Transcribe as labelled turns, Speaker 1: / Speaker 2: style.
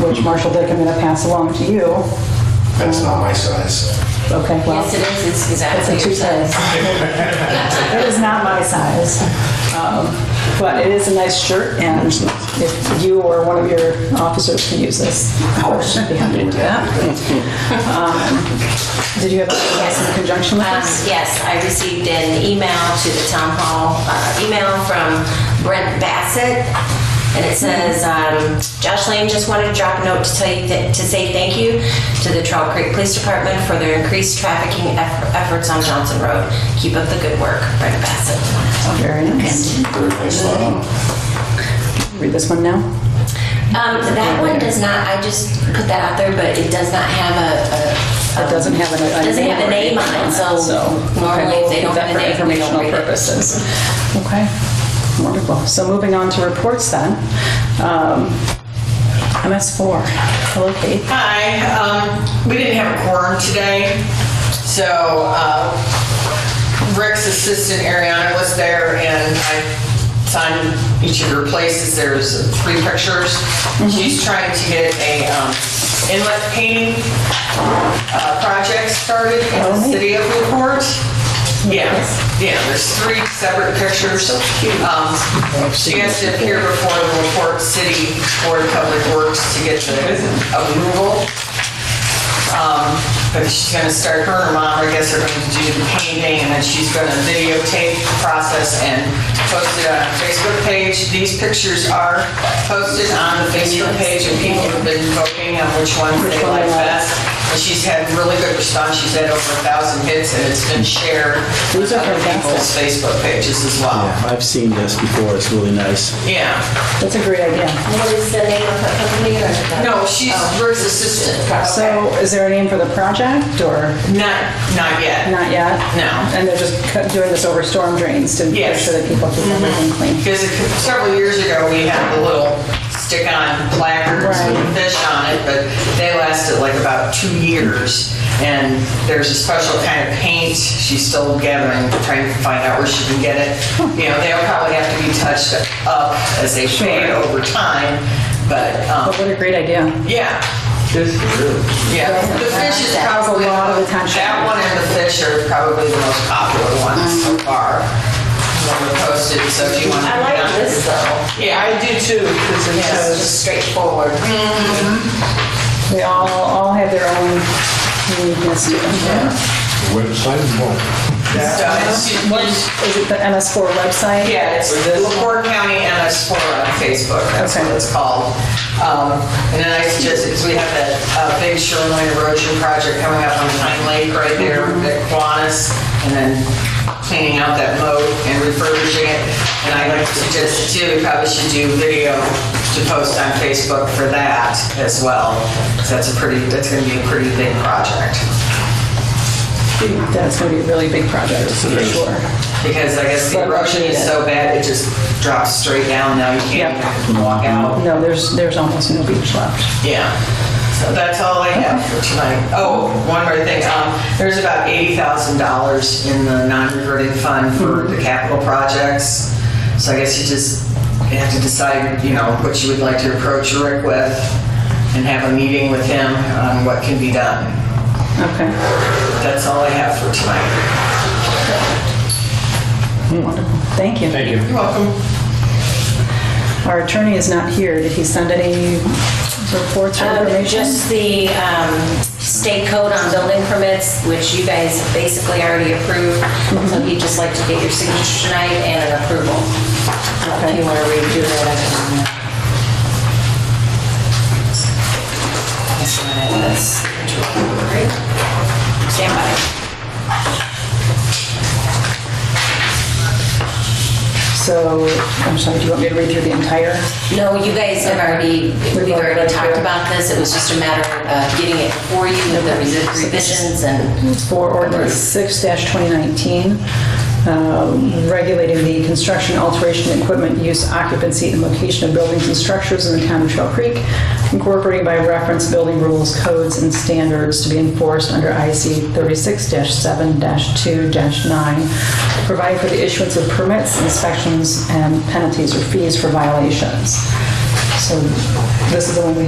Speaker 1: which Marshall Dick, I'm going to pass along to you.
Speaker 2: That's not my size.
Speaker 1: Okay, well,
Speaker 3: Yes, it is,
Speaker 1: it's
Speaker 3: it's
Speaker 1: a
Speaker 3: exactly your
Speaker 1: two-size.
Speaker 3: size.
Speaker 1: It is not my size, um, but it is a nice shirt, and if you or one of your officers can use this, I would be happy to do that. Um, Did you have anything else in conjunction with
Speaker 3: Um,
Speaker 1: this?
Speaker 3: Yes, I received an email to the town hall, uh, email from Brent Bassett, and it says, um, "Josh Lane just wanted to drop a note to tell you, that- to say thank you to the Trail Creek Police Department for their increased trafficking eff- efforts on Johnson Road. Keep up the good work, Brent Bassett." Uh,
Speaker 1: Very nice.
Speaker 2: Very nice lot.
Speaker 1: Read this one now.
Speaker 3: Um, That one does not, I just put that out there, but it does not have a- a...
Speaker 1: It doesn't have a- a
Speaker 3: Doesn't have a
Speaker 1: or
Speaker 3: name on
Speaker 1: anything
Speaker 3: it,
Speaker 1: on it,
Speaker 3: so
Speaker 1: so, okay,
Speaker 3: normally if they
Speaker 1: we'll
Speaker 3: don't
Speaker 1: keep that
Speaker 3: have a
Speaker 1: for
Speaker 3: name, we don't
Speaker 1: informational
Speaker 3: read it.
Speaker 1: purposes. Okay, wonderful. So moving on to reports then. Um, MS4, hello Kate.
Speaker 4: Hi, um, we didn't have a quorum today, so, uh, Rick's assistant Ariana was there and I signed each of her places, there's three pictures. She's trying to get a, um, inlet painting, uh, project started in the city of Newport. Yeah, yeah, there's three separate pictures. Um, She has to appear before the Newport City Board of Public Works to get the approval. Um, But she's gonna start, her and her mom, I guess, are gonna do the painting, and then she's gonna videotape the process and post it on her Facebook page. These pictures are posted on the Facebook page, and people have been voting on which ones they like best. And she's had really good response, she's had over a thousand hits, and it's been shared on
Speaker 1: These are
Speaker 4: other people's Facebook pages as well.
Speaker 5: Yeah, I've seen this before, it's really nice.
Speaker 4: Yeah,
Speaker 1: That's a great idea.
Speaker 3: What is the name of her company or? the-
Speaker 4: no, she's Rick's assistant,
Speaker 1: So is there a name for the project or
Speaker 4: not, not yet.
Speaker 1: not yet?
Speaker 4: No.
Speaker 1: And they're just cut- doing this over storm drains to make
Speaker 4: Yes.
Speaker 1: sure that people keep
Speaker 3: Mm-hmm.
Speaker 1: everything clean.
Speaker 4: Because several years ago, we had the little stick-on placards with
Speaker 1: Right.
Speaker 4: fish on it, but they lasted like about two years. And there's a special kind of paint, she's still gathering, trying to find out where she can get it. You know, they'll probably have to be touched up as they fade over time, but, um,
Speaker 1: But Oh, what a great idea.
Speaker 4: yeah. Yeah, the fish is
Speaker 1: That was a
Speaker 4: probably,
Speaker 1: lot of attention.
Speaker 4: that one and the fish are probably the most popular ones so far. When we're posted, so if you want to.
Speaker 3: Mm-hmm. I like this though.
Speaker 4: Yeah, I do too, because it
Speaker 3: Yes, it's just straightforward.
Speaker 1: They all, all have their own uniqueness to them.
Speaker 3: Mm-hmm.
Speaker 6: Website and what?
Speaker 1: What is is it the MS4 website?
Speaker 4: Yeah, it's the LaPorte County MS4 on Facebook, that's what
Speaker 1: Okay.
Speaker 4: it's called. Um, And then I suggest, because we have that uh, big shoreline erosion project coming up on Pine Lake right there at Kiwanis, and then cleaning out that moat and refurbishing it. And I like to suggest too, we probably should do video to post on Facebook for that as well. 'cause that's a pretty, that's gonna be a pretty big project.
Speaker 1: That's going to be a really big project, for sure.
Speaker 4: Because I guess the
Speaker 1: But
Speaker 4: erosion is so bad, it just drops straight down now, you can't
Speaker 1: Yeah.
Speaker 4: even walk out.
Speaker 1: No, there's, there's almost no beach left.
Speaker 4: Yeah. So that's all I have for tonight. Oh, one more thing, um, there's about eighty thousand dollars in the non-reverting fund for the capital projects. So I guess you just, you have to decide, you know, what you would like to approach Rick with and have a meeting with him on what can be done.
Speaker 1: Okay,
Speaker 4: That's all I have for tonight.
Speaker 1: wonderful. Thank you.
Speaker 6: Hmm. Thank you.
Speaker 4: You're welcome.
Speaker 1: Our attorney is not here. Did he send any reports or
Speaker 3: Um,
Speaker 1: information?
Speaker 3: Just the um, state code on building permits, which you guys basically already approved. So he'd just like to get your signature tonight and an approval. If you want to redo that, I can. uh, sign it. That's- Stand by.
Speaker 1: So, I'm sorry, do you want me to read through the entire?
Speaker 3: No, you guys have already, we've already talked about this. It was just a matter of uh, getting it for you, with the revisions and.
Speaker 1: For ordinance six twenty nineteen, um, regulating the construction, alteration, equipment, use, occupancy, and location of buildings and structures in the town of Trail Creek, incorporating by reference building rules, codes, and standards to be enforced under IC thirty-six seven two nine, providing for the issuance of permits, inspections, and penalties or fees for violations. So this is the one we